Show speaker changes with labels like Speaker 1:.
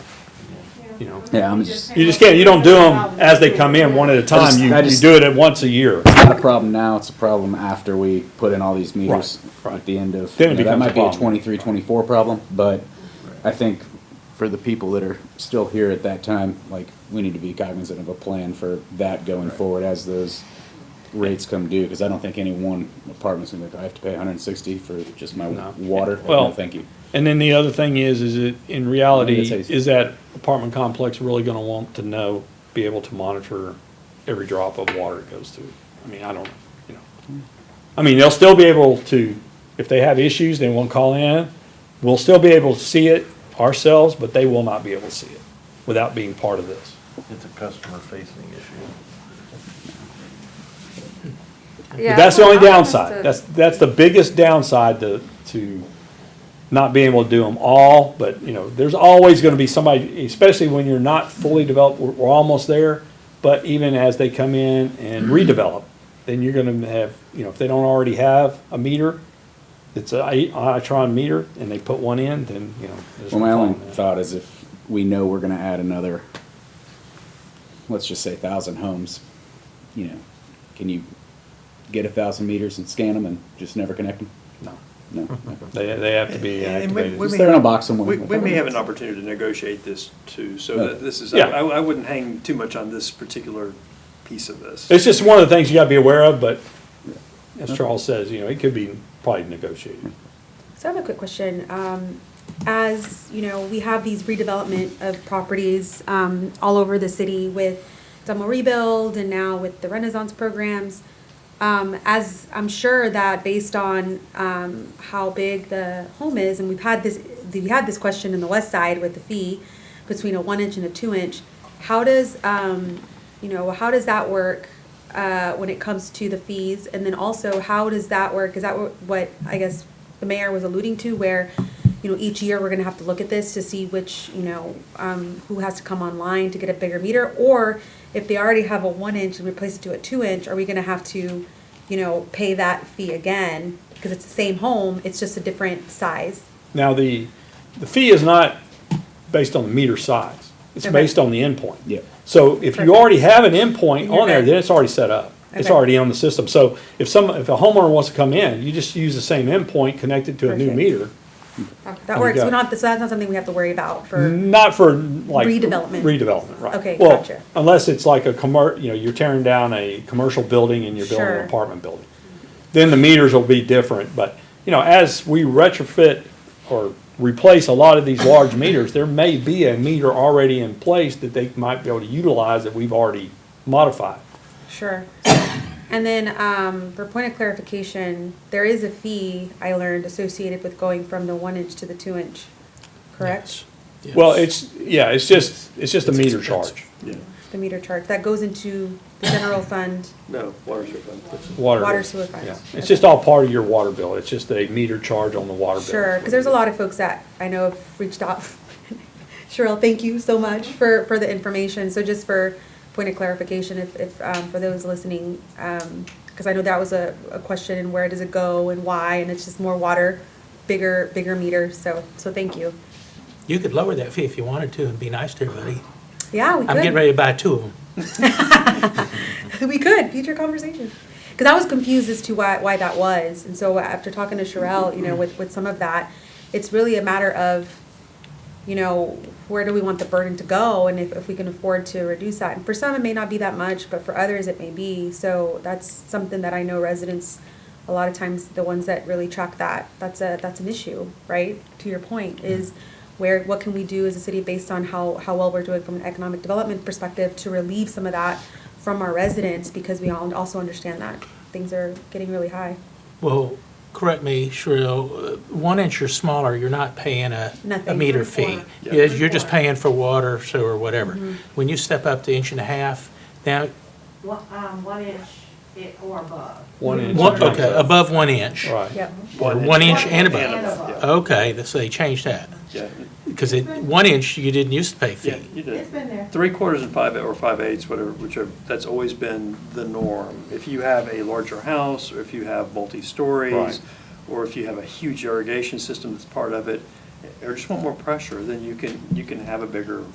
Speaker 1: you know.
Speaker 2: Yeah, I'm just,
Speaker 1: You just can't, you don't do them as they come in, one at a time.
Speaker 2: just-
Speaker 1: You,
Speaker 2: I
Speaker 1: you
Speaker 2: just-
Speaker 1: do it at once a year.
Speaker 2: it's not a problem now, it's a problem after we put in all these meters
Speaker 1: Right, right.
Speaker 2: at the end of,
Speaker 1: Then it
Speaker 2: you know,
Speaker 1: becomes
Speaker 2: that
Speaker 1: a
Speaker 2: might be a
Speaker 1: problem.
Speaker 2: twenty-three, twenty-four problem, but I think for the people that are still here at that time, like, we need to be cognizant of a plan for that going forward as those rates come due, because I don't think any one apartment's gonna be, like, I have to pay hundred and sixty for just my
Speaker 1: No.
Speaker 2: water, Like,
Speaker 1: Well,
Speaker 2: no, thank you.
Speaker 1: And then the other thing is, is it, in
Speaker 2: I think
Speaker 1: reality,
Speaker 2: that's how you-
Speaker 1: is that apartment complex really gonna want to know, be able to monitor every drop of water it goes through? I mean, I don't, you know. I mean, they'll still be able to, if they have issues, they won't call in. We'll still be able to see it ourselves, but they will not be able to see it without being part of this.
Speaker 3: It's a customer facing issue.
Speaker 1: But that's the only downside. That's, that's the biggest downside to, to not being able to do them all, but, you know, there's always gonna be somebody, especially when you're not fully developed, we're, we're almost there, but even as they come in and redevelop, then you're gonna have, you know, if they don't already have a meter, it's a I- Itron meter, and they put one in, then, you know. there's
Speaker 2: Well, my
Speaker 1: no
Speaker 2: only
Speaker 1: problem.
Speaker 2: thought is if we know we're gonna add another, let's just say thousand homes, you know, can you get a thousand meters and scan them and just never connect them?
Speaker 1: No,
Speaker 2: No.
Speaker 1: they, they have to be
Speaker 4: And we-
Speaker 1: activated.
Speaker 4: we
Speaker 2: Just
Speaker 4: may
Speaker 2: throw it in a
Speaker 4: have-
Speaker 2: box somewhere.
Speaker 4: We, we may have an opportunity to negotiate this too, so
Speaker 2: Yeah.
Speaker 4: that this is, I,
Speaker 1: Yeah.
Speaker 4: I wouldn't hang too much on this particular piece of this.
Speaker 1: It's just one of the things you gotta be aware of, but as Charles says, you know, it could be probably negotiated.
Speaker 5: So I have a quick question. Um, as you know, we have these redevelopment of properties um, all over the city with Dumble Rebuild and now with the Renaissance programs. Um, as I'm sure that based on um, how big the home is, and we've had this, we had this question in the West Side with the fee between a one inch and a two inch. How does um, you know how does that work uh, when it comes to the fees? And then also, how does that work? Is that what, what I guess the mayor was alluding to, where, you know, each year we're gonna have to look at this to see which, you know, um, who has to come online to get a bigger meter? Or if they already have a one inch and replace it to a two inch, are we gonna have to, you know, pay that fee again? Because it's the same home, it's just a different size.
Speaker 1: Now, the, the fee is not based on the meter size. It's
Speaker 5: Okay.
Speaker 1: based on the endpoint.
Speaker 2: Yeah.
Speaker 1: So if you
Speaker 5: Perfect.
Speaker 1: already have an endpoint on there,
Speaker 5: You're good.
Speaker 1: then it's already set up. It's
Speaker 5: Okay.
Speaker 1: already on the system. So if some, if a homeowner wants to come in, you just use the same endpoint connected to a new
Speaker 5: Perfect.
Speaker 1: meter.
Speaker 5: That works,
Speaker 1: got
Speaker 5: we
Speaker 1: it.
Speaker 5: don't have to, so that's not something we have to worry about for,
Speaker 1: Not for like.
Speaker 5: Redevelopment.
Speaker 1: Redevelopment, right.
Speaker 5: Okay,
Speaker 1: Well,
Speaker 5: gotcha.
Speaker 1: Unless it's like a commer, you know, you're tearing down a commercial building and you're building an
Speaker 5: Sure.
Speaker 1: apartment building. Then the meters will be different, but, you know, as we retrofit or replace a lot of these large meters, there may be a meter already in place that they might be able to utilize that we've already modified.
Speaker 5: sure. And then, um, for point of clarification, there is a fee I learned associated with going from the one inch to the two inch, correct?
Speaker 1: Well, it's, yeah, it's just, it's just a meter charge,
Speaker 4: Yeah.
Speaker 5: the meter chart, that goes into the general fund.
Speaker 4: No, water sewer fund.
Speaker 1: water.
Speaker 5: Water
Speaker 1: bill.
Speaker 5: sewer fund.
Speaker 1: Yeah. It's just all part of your water bill. It's just a meter charge on the water bill.
Speaker 5: Sure, because there's a lot of folks that I know have reached out. Cheryl, thank you so much for, for the information. So just for point of clarification, if, if, um, for those listening, um, because I know that was a, a question and where does it go and why, and it's just more water, bigger, bigger meter, so, so thank you.
Speaker 6: You could lower that fee if you wanted to and be nice to everybody.
Speaker 5: Yeah, we could.
Speaker 6: I'm getting ready to buy two of them.
Speaker 5: we could future conversation because i was confused as to why, why that was and so after talking to Sherelle, you know with, with some of that it's really a matter of you know where do we want the burden to go and if, if we can afford to reduce that and for some it may not be that much but for others it may be so that's something that i know residents a lot of times the ones that really track that that's a that's an issue right to your point is where what can we do as a city based on how how well we're doing from an economic development perspective to relieve some of that from our residents because we all also understand that things are getting really high
Speaker 6: Well, correct me, Shrill, uh, one inch or smaller, you're not paying a, a
Speaker 5: Nothing.
Speaker 6: meter
Speaker 5: Three
Speaker 6: fee.
Speaker 5: quarter.
Speaker 6: Yeah, You're just paying for water, sewer, whatever. When you step up to inch and a half, now,
Speaker 7: One, um, one inch it or above.
Speaker 1: One inch.
Speaker 6: one- okay, above one inch.
Speaker 1: Right.
Speaker 5: yep
Speaker 6: Or one inch and
Speaker 7: And
Speaker 6: above.
Speaker 7: above.
Speaker 6: Okay, that's- they changed that.
Speaker 4: Yeah,
Speaker 6: Because it, one inch, you didn't used to pay
Speaker 4: yeah,
Speaker 6: fee.
Speaker 4: you did.
Speaker 7: It's been there.
Speaker 4: Three quarters and five, or five eighths, whatever, whichever, that's always been the norm. If you have a larger house, or if you have
Speaker 1: Right.
Speaker 4: multi-stories, or if you have a huge irrigation system that's part of it, or just want more pressure, then you can, you can have a bigger